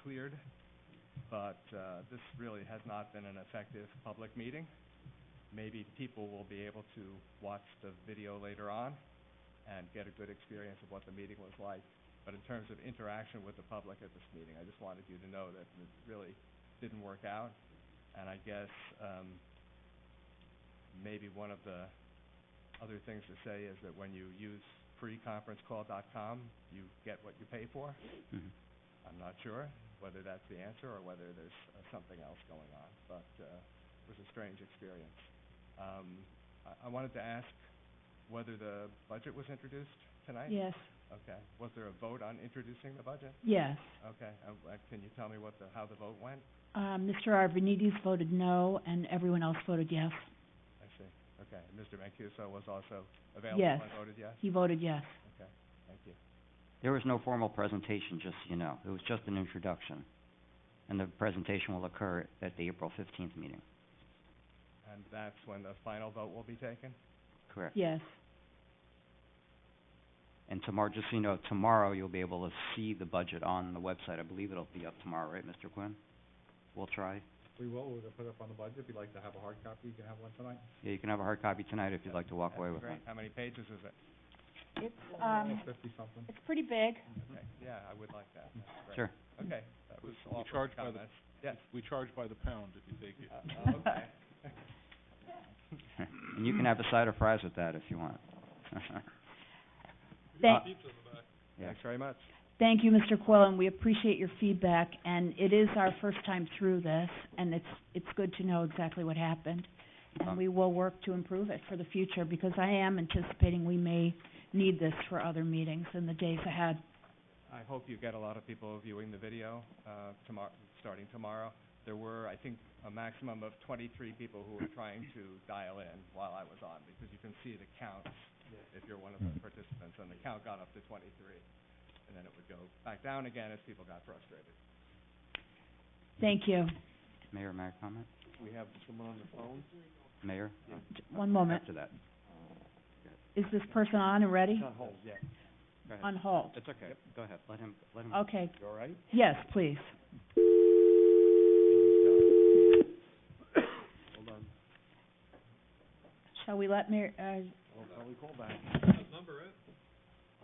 cleared, but uh, this really has not been an effective public meeting. Maybe people will be able to watch the video later on and get a good experience of what the meeting was like. But in terms of interaction with the public at this meeting, I just wanted you to know that it really didn't work out. And I guess um, maybe one of the other things to say is that when you use freeconferencecall.com, you get what you pay for. Mhm. I'm not sure whether that's the answer or whether there's uh, something else going on, but uh, it was a strange experience. Um, I I wanted to ask whether the budget was introduced tonight? Yes, Okay. Was there a vote on introducing the budget? yes. Okay. Uh, uh, Can you tell me what the, how the vote went? Uh, Mr. Arvanites voted no, and everyone else voted yes. I see. Okay. And Mr. Mancuso was also available Yes. and voted yes? He voted yes. Okay. Thank you. There was no formal presentation, just so you know. It was just an introduction. And the presentation will occur at the April fifteenth meeting, And that's when the final vote will be taken? correct? Yes, And tomorrow, just so you know, tomorrow you'll be able to see the budget on the website. I believe it'll be up tomorrow, right, Mr. Quinn? We'll try. We will. We're going to put up on the budget. If you'd like to have a hard copy, you can have one tonight. Yeah, you can have a hard copy tonight if you'd like to walk away with Great. one. How many pages is it? um, Oh, Fifty-something. it's pretty big. Okay. Yeah, I would like that. That's great. Sure. Okay. That was We all for charge by the- comments. Yes. We charge by the pound if you take it. Uh, uh, Okay. And you can have a side of fries with that if you want. Thank, Uh, Yeah. Thanks very much. thank you, Mr. Quillen. We appreciate your feedback, and it is our first time through this, and it's, it's good to know exactly what happened. And Um, we will work to improve it for the future, because I am anticipating we may need this for other meetings in the days ahead. I hope you get a lot of people viewing the video, uh, tomorrow, starting tomorrow. There were, I think, a maximum of twenty-three people who were trying to dial in while I was on, because you can see the counts if you're one of Hmm. the participants, and the count got up to twenty-three. And then it would go back down again as people got frustrated. Thank you. Mayor, may I comment? We have someone on the phone? Mayor? J- One moment. After that. Is this person on and ready? hold, yeah. Go ahead. On hold. It's okay. Go ahead. Let him, let him. Okay, You all right? yes, please. Hold on. Shall we let Mayor, uh, We'll probably call back. What number is?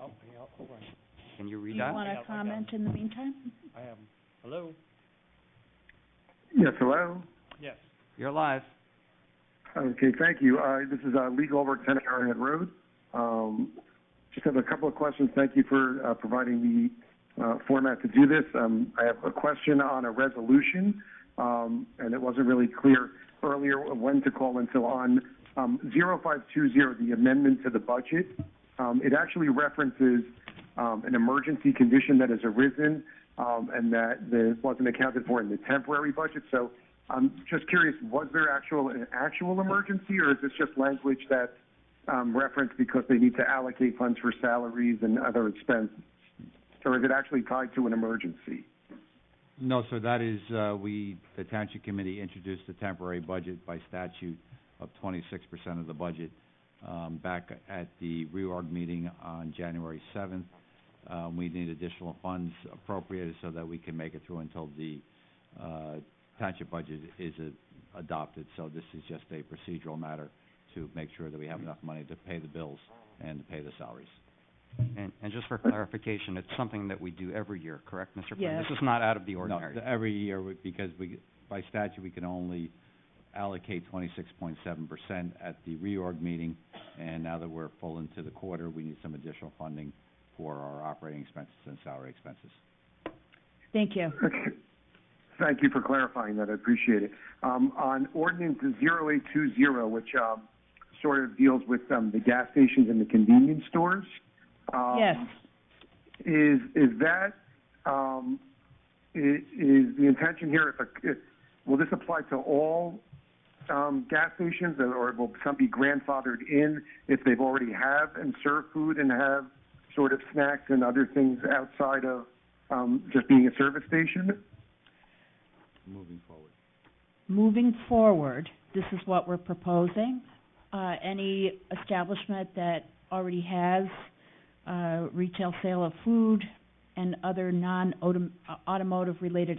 Oh, yeah, hold on. Can you Do read you that? want Yeah, I to got comment in the meantime? I have him. Hello? Yes, hello. Yes. You're live. Okay, thank you. Uh, this is uh, Lee Goldberg, 10 Arrowhead Road. Um, just have a couple of questions. Thank you for uh, providing the uh, format to do this. Um, I have a question on a resolution, um, and it wasn't really clear earlier when to call and so on. Um, 0520, the amendment to the budget, um, it actually references um, an emergency condition that has arisen um, and that that wasn't accounted for in the temporary budget. So I'm just curious, was there actual an actual emergency, or is this just language that's um, referenced because they need to allocate funds for salaries and other expenses? Or is it actually tied to an emergency? No, sir, that is, uh, we, the township committee introduced a temporary budget by statute of twenty-six percent of the budget, um, back at the reorg meeting on January seventh. Um, we need additional funds appropriated so that we can make it through until the, uh, township budget is uh, adopted. So this is just a procedural matter to make sure that we have enough money to pay the bills and to pay the salaries. And, and just for clarification, it's something that we do every year, correct, Mr. Quinn? Yes. This is not out of the No, ordinary. th- every year, we- because we, by statute, we can only allocate twenty-six point seven percent at the reorg meeting, and now that we're full into the quarter, we need some additional funding for our operating expenses and salary expenses. Thank you. Okay. Thank you for clarifying that. I appreciate it. Um, on ordinance 0820, which um, sort of deals with um, the gas stations and the convenience stores. Um, Yes, is is that um, i- is the intention here? If, a, if will this apply to all um, gas stations, or- or will some be grandfathered in if they've already have and serve food and have sort of snacks and other things outside of um, just being a service station? Moving forward. moving forward, this is what we're proposing. Uh, any establishment that already has, uh, retail sale of food uh, and other non-automotive related